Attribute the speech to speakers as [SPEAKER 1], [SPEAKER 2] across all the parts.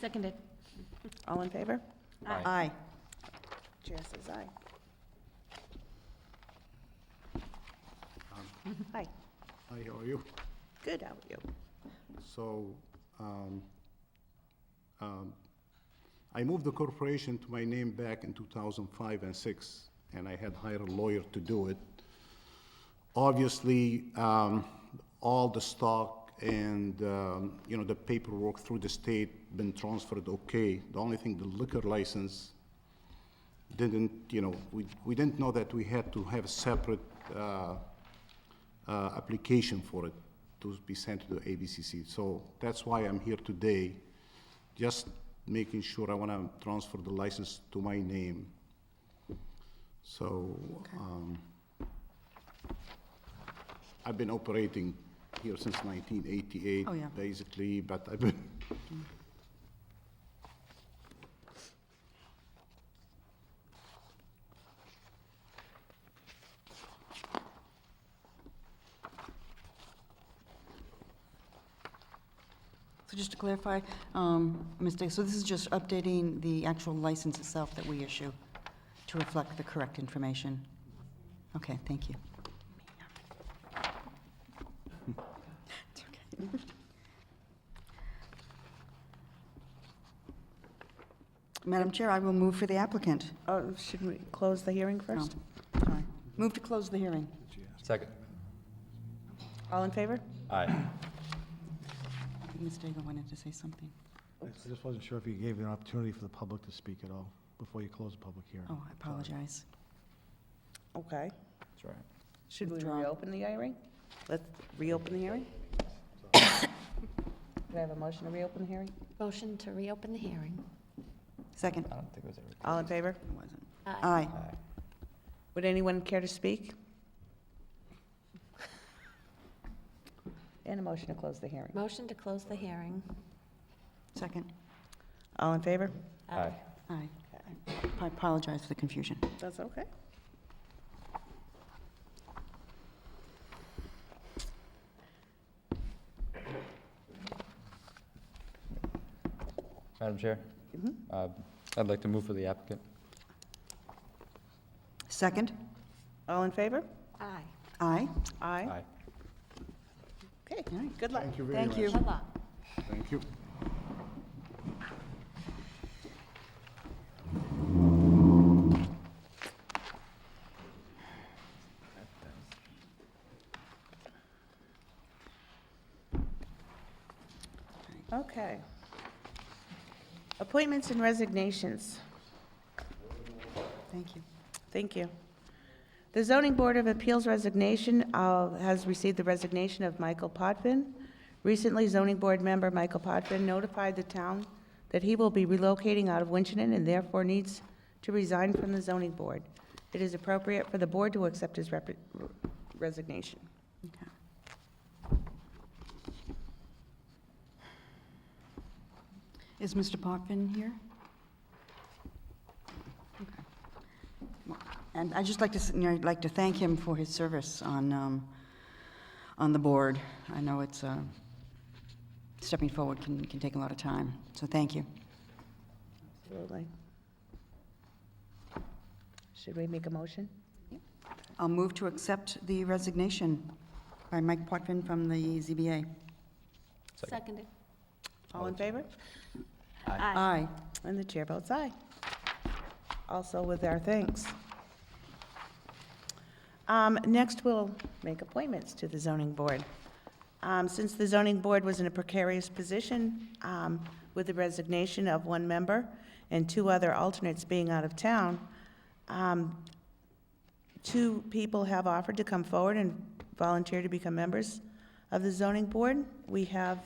[SPEAKER 1] Seconded.
[SPEAKER 2] All in favor?
[SPEAKER 1] Aye.
[SPEAKER 2] Aye. Chair says aye. Hi,
[SPEAKER 3] Hi, how are you?
[SPEAKER 2] good, how are you?
[SPEAKER 3] So, um, um, I moved the corporation to my name back in 2005 and 6, and I had hired a lawyer to do it. Obviously, um, all the stock and, um, you know, the paperwork through the state been transferred okay. The only thing, the liquor license didn't, you know, we, we didn't know that we had to have a separate, uh, uh, application for it to be sent to the ABCC. So that's why I'm here today, just making sure I want to transfer the license to my name. So, um, I've been operating here since 1988.
[SPEAKER 4] Oh, yeah.
[SPEAKER 3] Basically, but I've been,
[SPEAKER 4] So just to clarify, um, Ms. Day, so this is just updating the actual license itself that we issue to reflect the correct information? Okay, thank you. It's okay. Madam Chair, I will move for the applicant.
[SPEAKER 2] Oh, should we close the hearing
[SPEAKER 4] Oh,
[SPEAKER 2] first?
[SPEAKER 4] sorry. Move to close the hearing.
[SPEAKER 5] Second.
[SPEAKER 2] All in favor?
[SPEAKER 5] Aye.
[SPEAKER 4] Ms. Daigle wanted to say something.
[SPEAKER 6] I just wasn't sure if you gave an opportunity for the public to speak at all before you closed the public hearing.
[SPEAKER 4] Oh, I apologize.
[SPEAKER 2] Okay.
[SPEAKER 5] That's right.
[SPEAKER 2] Should we
[SPEAKER 4] Withdraw.
[SPEAKER 2] reopen the hearing? Let's reopen the hearing? Can I have a motion to reopen the hearing?
[SPEAKER 1] Motion to reopen the hearing.
[SPEAKER 4] Second.
[SPEAKER 5] I don't think it was ever.
[SPEAKER 2] All in favor?
[SPEAKER 4] It wasn't.
[SPEAKER 1] Aye.
[SPEAKER 4] Aye.
[SPEAKER 5] Aye.
[SPEAKER 2] Would anyone care to speak? And a motion to close the hearing.
[SPEAKER 1] Motion to close the hearing.
[SPEAKER 4] Second.
[SPEAKER 2] All in favor?
[SPEAKER 5] Aye.
[SPEAKER 4] Aye. I apologize for the confusion.
[SPEAKER 2] That's okay.
[SPEAKER 5] Madam Chair? Uh, I'd like to move for the applicant.
[SPEAKER 4] Second?
[SPEAKER 2] All in favor?
[SPEAKER 1] Aye.
[SPEAKER 4] Aye.
[SPEAKER 2] Aye. Okay,
[SPEAKER 4] All right.
[SPEAKER 2] good luck.
[SPEAKER 3] thank you very much.
[SPEAKER 4] Thank you.
[SPEAKER 1] Good luck.
[SPEAKER 3] Thank you.
[SPEAKER 2] Okay. Appointments and resignations.
[SPEAKER 4] Thank you.
[SPEAKER 2] Thank you. The Zoning Board of Appeals resignation uh, has received the resignation of Michael Potvin. Recently, zoning board member Michael Potvin notified the town that he will be relocating out of Winchendon and therefore needs to resign from the zoning board. It is appropriate for the board to accept his rep- resignation.
[SPEAKER 4] Okay. Is Mr. Potvin here? Okay. Well, And I'd just like to, s- you know, I'd like to thank him for his service on, um, on the board. I know it's, uh, stepping forward can, can take a lot of time, so thank you.
[SPEAKER 2] Absolutely. Should we make a motion?
[SPEAKER 4] I'll move to accept the resignation by Mike Potvin from the ZBA.
[SPEAKER 5] Second.
[SPEAKER 1] Seconded.
[SPEAKER 2] All in favor?
[SPEAKER 1] Aye.
[SPEAKER 4] Aye.
[SPEAKER 2] And the chair votes aye. Also with our thanks. Um, Next, we'll make appointments to the zoning board. Um, Since the zoning board was in a precarious position um, with the resignation of one member and two other alternates being out of town, um, two people have offered to come forward and volunteer to become members of the zoning board. We have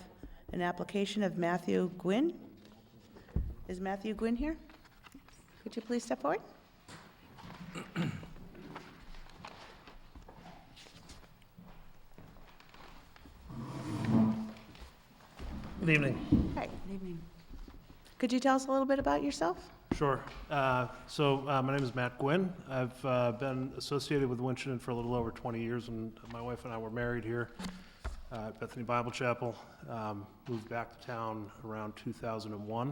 [SPEAKER 2] an application of Matthew Gwynn. Is Matthew Gwynn here? Could you please step forward?
[SPEAKER 7] Good evening.
[SPEAKER 2] Hi.
[SPEAKER 4] Good evening.
[SPEAKER 2] Could you tell us a little bit about yourself?
[SPEAKER 7] Sure. Uh, So uh, my name is Matt Gwynn. I've uh, been associated with Winchendon for a little over 20 years, and my wife and I were married here uh, at Bethany Bible Chapel. Um, Moved back to town around 2001.